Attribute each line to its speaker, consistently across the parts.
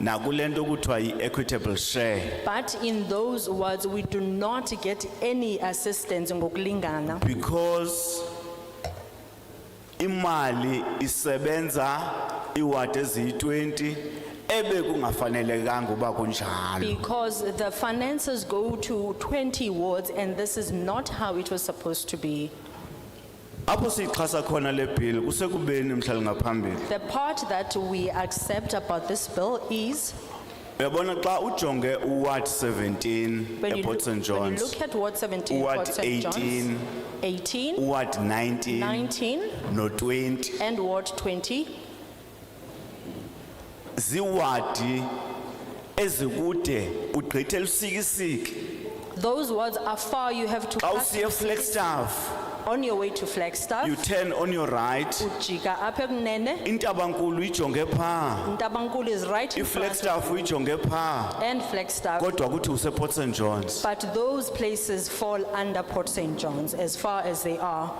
Speaker 1: nakule nto kuthiwa yi-equitable share
Speaker 2: But in those words, we do not get any assistance ngokulingana.
Speaker 1: because imali isebenza iwadi eziyi-20 ebekungafanelekanga uba kunjalo
Speaker 2: Because the finances go to twenty wards and this is not how it was supposed to be.
Speaker 1: apho siyixhasa khona le bhili kusekubeni mhlali ngaphambili
Speaker 2: The part that we accept about this bill is
Speaker 1: uyabona xa ujonge uward 17
Speaker 2: when you
Speaker 1: eport
Speaker 2: look,
Speaker 1: st
Speaker 2: when you
Speaker 1: johns
Speaker 2: look at Ward seventeen,
Speaker 1: Ward
Speaker 2: Ward St. John's.
Speaker 1: 18,
Speaker 2: Eighteen,
Speaker 1: uward 19
Speaker 2: nineteen
Speaker 1: no-20
Speaker 2: and Ward twenty.
Speaker 1: ziwadi ezikude ugqithe elusikisiki
Speaker 2: Those words are far, you have to
Speaker 1: xa
Speaker 2: pass
Speaker 1: usiye flagstaff
Speaker 2: on your way to Flagstaff.
Speaker 1: you turn on your right
Speaker 2: Ujika apha ekunene,
Speaker 1: intabankulu uyijonge phaa
Speaker 2: Ntabankulu is right in front
Speaker 1: iflagstaff uyijonge phaa
Speaker 2: and Flagstaff.
Speaker 1: kodwa kuthi useport st johns
Speaker 2: But those places fall under Port St. John's as far as they are.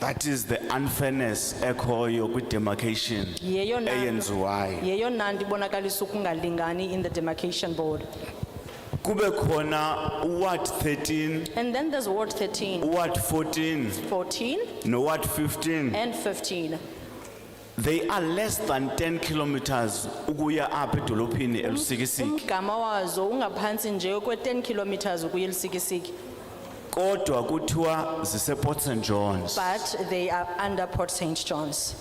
Speaker 1: that is the unfairness ekhoyo kwi-demarcation
Speaker 2: Yeyona-
Speaker 1: eyenziwayo
Speaker 2: Yeyona ndibonakalisa ukungalingani in the demarcation board.
Speaker 1: kube khona uward 13
Speaker 2: And then there's Ward 13,
Speaker 1: uward 14
Speaker 2: 14
Speaker 1: noward 15
Speaker 2: and 15.
Speaker 1: they are less than 10 kilometers ukuya apha edolophini elusikisiki
Speaker 2: Umgama wazo ungaphantsi nje kwe 10 kilometers ukuya eLusikisiki,
Speaker 1: kodwa kuthiwa ziseport st johns
Speaker 2: but they are under Port St. John's.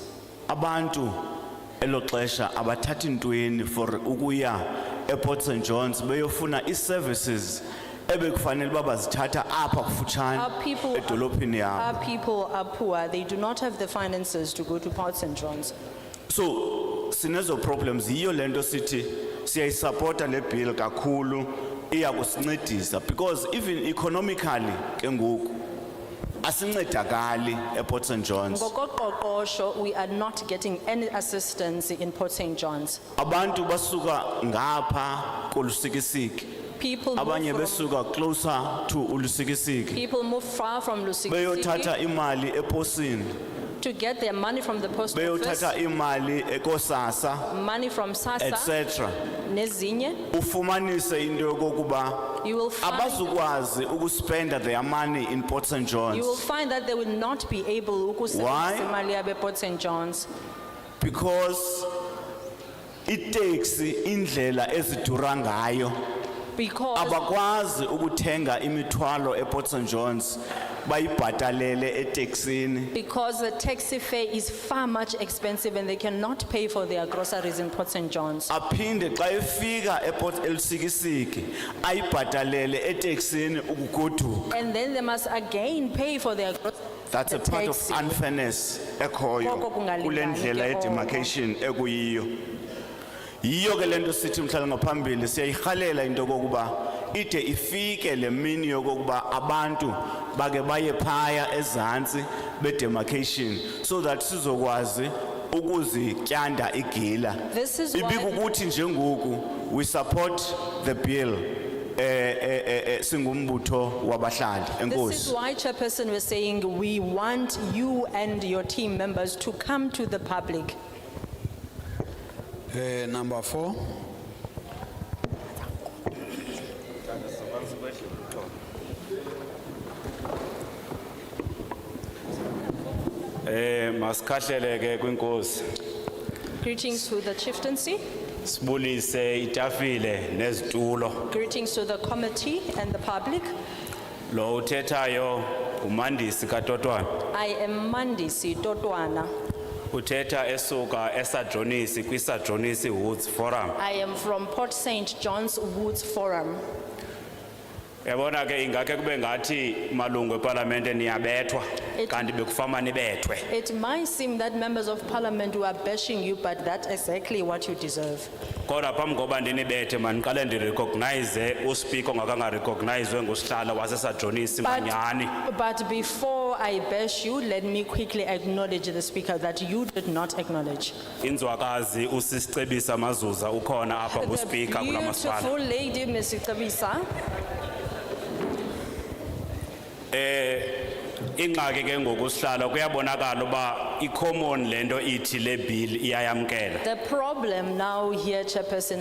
Speaker 1: abantu elo xesha abathathi ntweni for ukuya eport st johns beyofuna ii-services ebekufanele uba bazithatha apha kufutshane
Speaker 2: Our people-
Speaker 1: edolophini yabo
Speaker 2: Our people are poor, they do not have the finances to go to Port St. John's.
Speaker 1: so sinezo problems yiyo le nto sithi siyayisapota le bill kakhulu iya kusincedisa because even economically ke ngoku asincedakali eport st johns
Speaker 2: Ngokoqoqosho, we are not getting any assistance in Port St. John's.
Speaker 1: abantu basuka ngapha kolusikisiki
Speaker 2: People
Speaker 1: abanye
Speaker 2: move from,
Speaker 1: besuka closer to ulusikisiki
Speaker 2: people move far from Lusikisiki
Speaker 1: beyothatha imali eposini
Speaker 2: to get their money from the post office,
Speaker 1: beyothatha imali ekosasa
Speaker 2: money from SASSA,
Speaker 1: etc
Speaker 2: nezinye.
Speaker 1: ufumanise into yokokuba
Speaker 2: You will find,
Speaker 1: abazukwazi ukuspenda their money in port st
Speaker 2: you will
Speaker 1: johns
Speaker 2: find that they will not be able
Speaker 1: Why?
Speaker 2: ukusebenzisa imali yabe Port St. John's.
Speaker 1: because iteksi indlela ezidura ngayo
Speaker 2: Because
Speaker 1: abakwazi ukuthenga imithwalo eport st johns bayibhatalele eteksini
Speaker 2: Because the taxi fare is far much expensive and they cannot pay for their groceries in Port St.
Speaker 1: Ah.
Speaker 2: John's.
Speaker 1: aphinde xa efika eport elisikisiki ayibhatalele eteksini ukugoduka
Speaker 2: And then they must again pay for their groceries.
Speaker 1: that's a part of
Speaker 2: Taxi.
Speaker 1: unfairness ekhoyo
Speaker 2: Koko kungalingani
Speaker 1: kule ndlela
Speaker 2: ke oko.
Speaker 1: yedemarcation ekuyiyo yiyo ke le nto sithi mhlala ngaphambili siyayirhalela into yokokuba ide ifike le mini yokokuba abantu bake baye phaya ezantsi bedemarcation so that sizokwazi ukuzityanda igila
Speaker 2: This is why-
Speaker 1: ibikukuthi njengoku we support the bill eh eh eh, eh singumbutho wabahlali
Speaker 2: This is
Speaker 1: enkosi
Speaker 2: why Chairperson was saying, we want you and your team members to come to the public.
Speaker 3: Eh, number four.
Speaker 4: Eh masikhahlele ke kwinkosi
Speaker 2: Greetings to the chieftaincy,
Speaker 4: sibulise itafile nezitulo
Speaker 2: greetings to the committee and the public.
Speaker 4: lo uthethayo umandisi kaTotwana
Speaker 2: I am Mandisi Totwana.
Speaker 4: uthetha esuka esadronisi kwisadronisi Woods Forum
Speaker 2: I am from Port St. John's Woods Forum.
Speaker 4: yabona ke ingakhe kube ngathi malungu eParlamente niyabethwa
Speaker 2: It-
Speaker 4: kanti bekufama nibethwe
Speaker 2: It might seem that members of parliament were bashing you, but that's exactly what you deserve.
Speaker 4: kodwa phambi koba ndinibethe mandiqale ndirecognize uSpeaker ongakangarecognizwe ngusihlalo wasesadronisi
Speaker 2: But-
Speaker 4: manyani
Speaker 2: But before I bash you, let me quickly acknowledge the speaker that you did not acknowledge.
Speaker 4: inzwakazi usisicebisa mazuza ukhona apha kuSpeaker
Speaker 2: The
Speaker 4: kulamasipala
Speaker 2: beautiful lady, Ms. Tabisa.
Speaker 4: ingxaki ke ngokusihlalo kuyabonakala uba i-common lento ithi le bill iyayamkela
Speaker 2: The problem now here, Chairperson,